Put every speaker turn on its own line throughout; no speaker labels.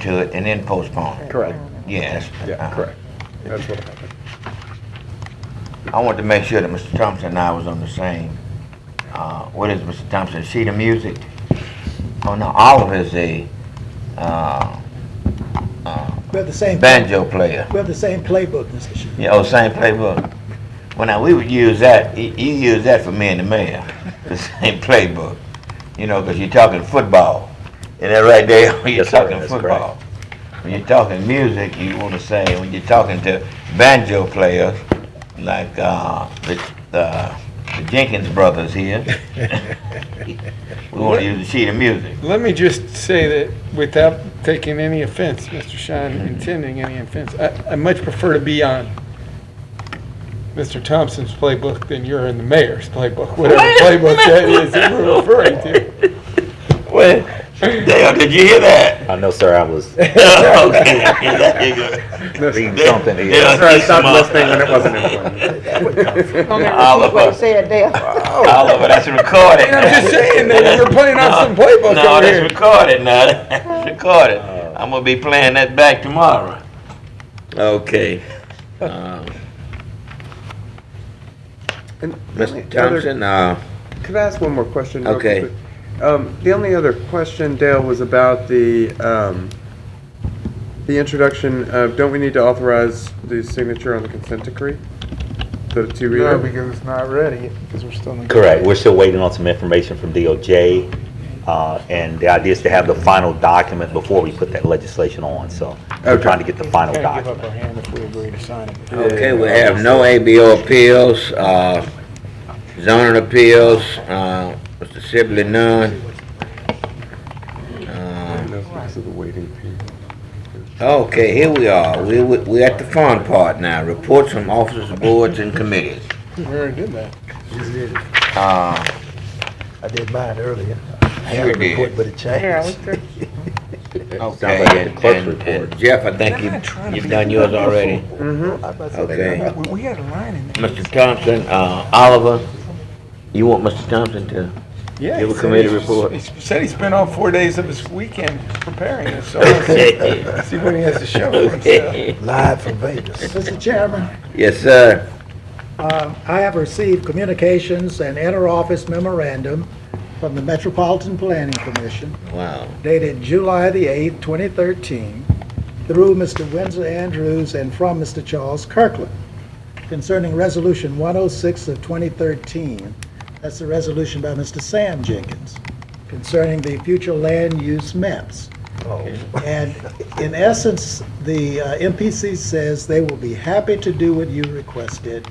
to it and then postpone it.
Correct.
Yes.
Yeah,
uh-huh.
correct. That's what happened.
I wanted to make sure that Mr. Thompson and I was on the same, uh, what is Mr. Thompson, sheet of music? Oh, no, Oliver is a, uh,
We have the same, we
banjo player.
have the same playbook, Mr. Shue.
Yeah, oh, same playbook. Well, now, we would use that, you you use that for me and the mayor, the same playbook. You know, because you're talking football, and that right there, you're
Yes, sir,
talking
that's
football. When you're talking music, you want to say, when you're talking to banjo players, like uh, the uh, the Jenkins brothers here, we want to use a sheet of music.
Let me just say that without taking any offense, Mr. Shine, intending any offense, I, I much prefer to be on Mr. Thompson's playbook than you're in the mayor's playbook, whatever playbook that is that we're referring to.
Well, Dale, did you hear that?
I know, sir, I was
Okay, yeah, that nigga-
reading something here.
Dale,
Sorry, I
keep
stopped
him up.
listening when it wasn't important.
Oliver.
What you said there.
Oh. Oliver, that's recorded.
And Oh. I'm just saying that we're playing off some playbook
No, that's
over here.
recorded now. That's recorded.
Oh.
I'm gonna be playing that back tomorrow. Okay.
Uh,
Um,
And
Mr.
the other-
Thompson, uh,
Could I ask one more question? real
Okay.
quickly? Um, the only other question, Dale, was about the, um, the introduction of, don't we need to authorize the signature on the consent decree? The two
No,
reader?
because it's not ready, because we're still in.
Correct. We're still waiting on some information from DOJ, uh, and the idea is to have the final document before we put that legislation on, so we're
Okay.
trying to get the final
Kind of give
document.
up our hand if we agree to sign it.
okay, we have no ABO appeals, uh, zoning appeals, uh, Mr. Sibley, none. Uh,
Because of the waiting period.
Okay, here we are. We, we, we at the fun part now. Reports from officers, boards, and committees.
We already did that.
Just did it.
Uh,
I did mine earlier. I
Sure
had a
did.
report, but it changed.
Okay,
like the
and-
clerk's
and-
report.
and Jeff, I think you've, you've done yours already. Okay.
We had a line in there.
Mr. Thompson, uh, Oliver, you want Mr. Thompson to?
Yeah,
Give a
he said
committee
he's-
report.
He said he spent all four days of his weekend preparing this, so let's see
Okay.
see what he has to show for himself.
Live from Vegas.
Mr. Chairman.
Yes, sir.
Uh, I have received communications and interoffice memorandum from the Metropolitan Planning Commission
Wow.
dated July the 8th, 2013, through Mr. Windsor Andrews and from Mr. Charles Kirkland concerning Resolution 106 of 2013. That's the resolution by Mr. Sam Jenkins concerning the future land use maps.
Oh.
And in essence, the uh, MPC says they will be happy to do what you requested,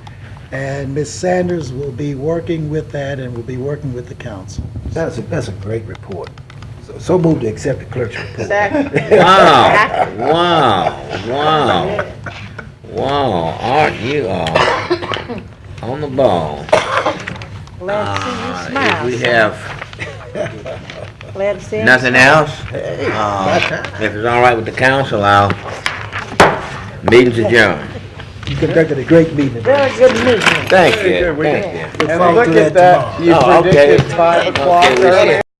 and Ms. Sanders will be working with that and will be working with the council.
That's a, that's a great report. So- So moved to accept the clerk's report.
Wow, wow, wow, wow. Art, you are on the ball.
Glad to see
Uh,
you
If
smile.
we
sir.
have
Glad to see you.
nothing else, uh, if it's all right with the council, I'll, meeting's adjourned.
You conducted a great meeting.
Very good meeting.
Thank
Very good,
you,
we-
thank you.
Look
And look
forward to
at
that tomorrow.
that, you
Oh, okay.
predicted five
Okay,
o'clock
we
earlier.
did.